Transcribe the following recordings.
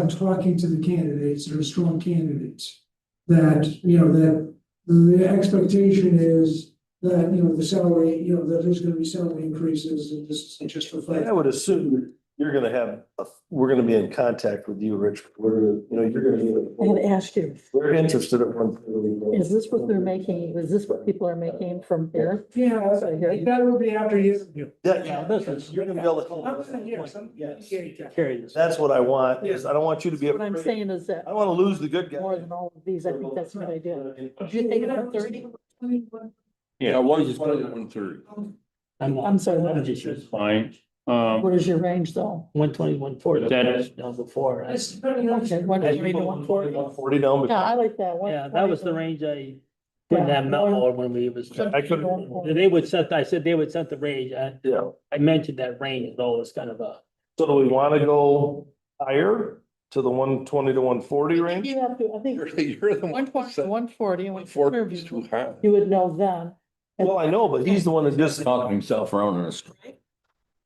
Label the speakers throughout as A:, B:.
A: I'm talking to the candidates or strong candidates. That, you know, that the expectation is that, you know, the salary, you know, that there's gonna be salary increases and this is just for
B: But
A: fun.
B: I would assume that you're gonna have, a- we're gonna be in contact with you, Rich. We're, you know, you're
C: I'm
B: gonna
C: gonna
B: be,
C: ask you,
B: we're interested at one. point.
C: is this what they're making, is this what people are making from here?
A: Yeah,
C: So here-
A: that would be after you.
B: Yeah,
D: Yeah,
B: yeah,
D: this is-
B: you're gonna be able
A: I
B: to.
A: wasn't here, so I'm-
D: Yes.
A: Yeah.
D: Carry this.
B: That's what I want, is I don't want you to be.
C: What I'm
B: afraid.
C: saying is that
B: I don't wanna lose the good guy.
C: more than all of these, I think that's a good idea. Did you think about thirty?
E: Yeah, I was just putting one thirty.
C: I'm sorry, what?
E: It's fine. Um,
C: What is your range though?
D: One twenty, one forty.
E: That is-
D: No, before. I-
A: It's depending on.
C: Okay, one
D: As you
C: thirty to
D: put
C: one forty.
B: 40 down,
C: Yeah, I
B: but
C: like that one.
D: Yeah, that was the range I put in that memo when we was.
B: I couldn't-
D: They would set, I said they would set the range. I,
B: yeah.
D: I mentioned that range, though, it's kind of a.
B: So do we wanna go higher to the one twenty to one forty range?
C: You have to, I think,
E: you're you're the
C: one
E: one.
C: point, one forty, and when you
E: Forty is too
C: interview,
E: high.
C: you would know then.
B: Well, I know, but he's the one that just,
E: Talking himself around in a circle.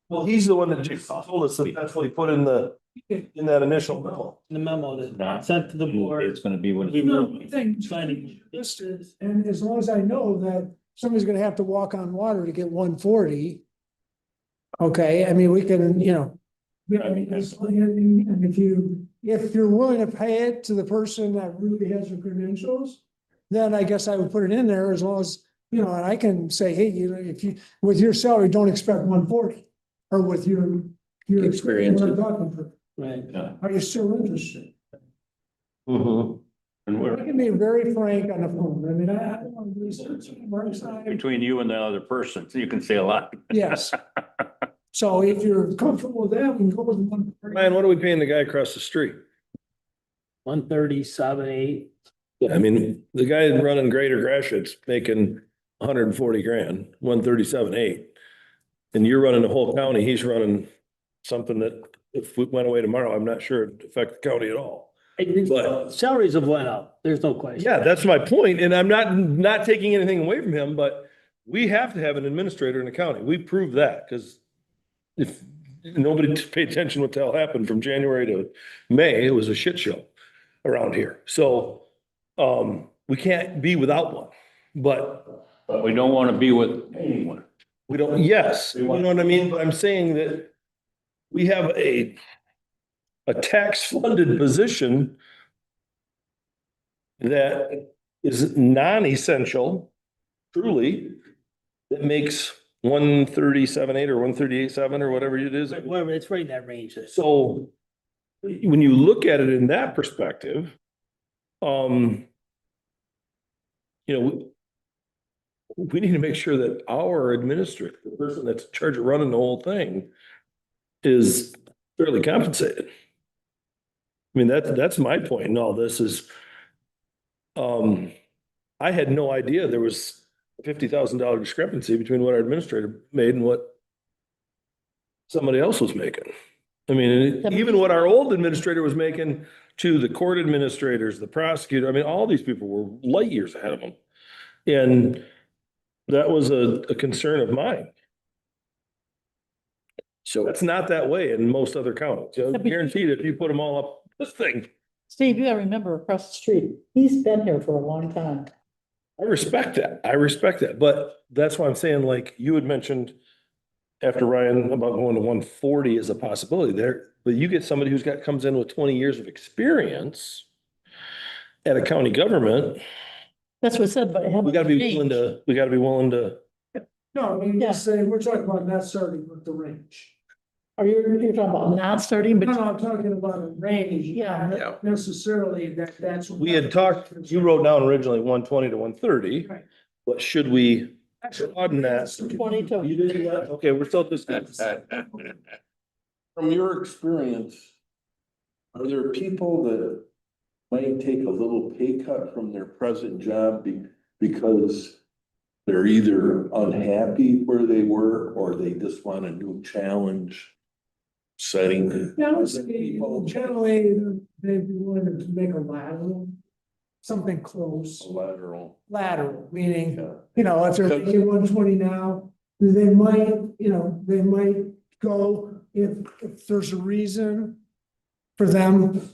B: well, he's the one that just told us that that's what he put in the, in that initial memo.
D: The memo that
E: Not-
D: sent to the board.
E: It's gonna be what.
D: We
A: No,
D: were
A: I think-
D: Finding.
A: This is- And as long as I know that somebody's gonna have to walk on water to get one forty. Okay, I mean, we can, you know. I mean, as- and and if you, if you're willing to pay it to the person that really has the credentials. Then I guess I would put it in there as long as, you know, and I can say, hey, you know, if you, with your salary, don't expect one forty. Or with your, your.
E: Experience.
A: what I'm talking about.
D: Right.
E: Yeah.
A: Are you still interested?
B: Mm-hmm.
E: And
A: I
E: we're
A: can be very frank on the phone. I mean, I I don't want to research on my side.
E: between you and the other person, so you can say a lot.
A: Yes. So if you're comfortable with that, we can go with one.
F: Ryan, what are we paying the guy across the street?
D: One thirty, seven, eight.
F: I mean, the guy running Greater Gratiot's making hundred and forty grand, one thirty-seven, eight. And you're running the whole county, he's running something that if we went away tomorrow, I'm not sure it'd affect the county at all. But-
D: Salaries have went up, there's no question.
F: Yeah, that's my point, and I'm not, not taking anything away from him, but we have to have an administrator in the county. We proved that, because if nobody paid attention what the hell happened from January to May, it was a shit show around here. So, um, we can't be without one, but
E: But we don't wanna be with anyone.
F: we don't, yes, you know what I mean? But I'm saying that we have a, a tax-funded position that is non-essential, truly, that makes one thirty-seven eight or one thirty-eight seven or whatever it is.
D: Whatever, it's right in that range.
F: So when you look at it in that perspective, um, you know, we- we need to make sure that our administrator, the person that's in charge of running the whole thing is fairly compensated. I mean, that's, that's my point in all this is, um, I had no idea there was a fifty thousand dollar discrepancy between what our administrator made and what somebody else was making. I mean, and it- even what our old administrator was making to the court administrators, the prosecutor, I mean, all these people were light years ahead of them. And that was a, a concern of mine.
E: So.
F: That's not that way in most other counties. You know, Guaranteed, if you put them all up, this thing,
C: Steve, you gotta remember across the street, he's been here for a long time.
F: I respect that. I respect that. But that's why I'm saying, like, you had mentioned after Ryan about going to one forty is a possibility there, but you get somebody who's got, comes in with twenty years of experience at a county government,
C: That's what I said, but.
F: we gotta be willing to, we gotta be willing to,
A: No, I mean,
C: Yeah.
A: just say, we're talking about not starting with the range.
C: Are you, you're talking about not starting,
A: No,
C: but
A: no, I'm talking about a range.
C: Yeah.
A: not Necessarily that that's.
F: we had talked, you wrote down originally one twenty to one thirty.
A: Right.
F: But should we, on that-
C: twenty to.
F: you didn't, okay, we're still discussing.
E: From your experience, are there people that might take a little pay cut from their present job be- because they're either unhappy where they were or they just want a new challenge setting?
A: Yeah, I would say, you know, generally, they'd be willing to make a lateral, something close,
E: Lateral.
A: lateral, meaning.
E: yeah.
A: you know, if they're
E: Okay.
A: making one twenty now, they might, you know, they might go if, if there's a reason for them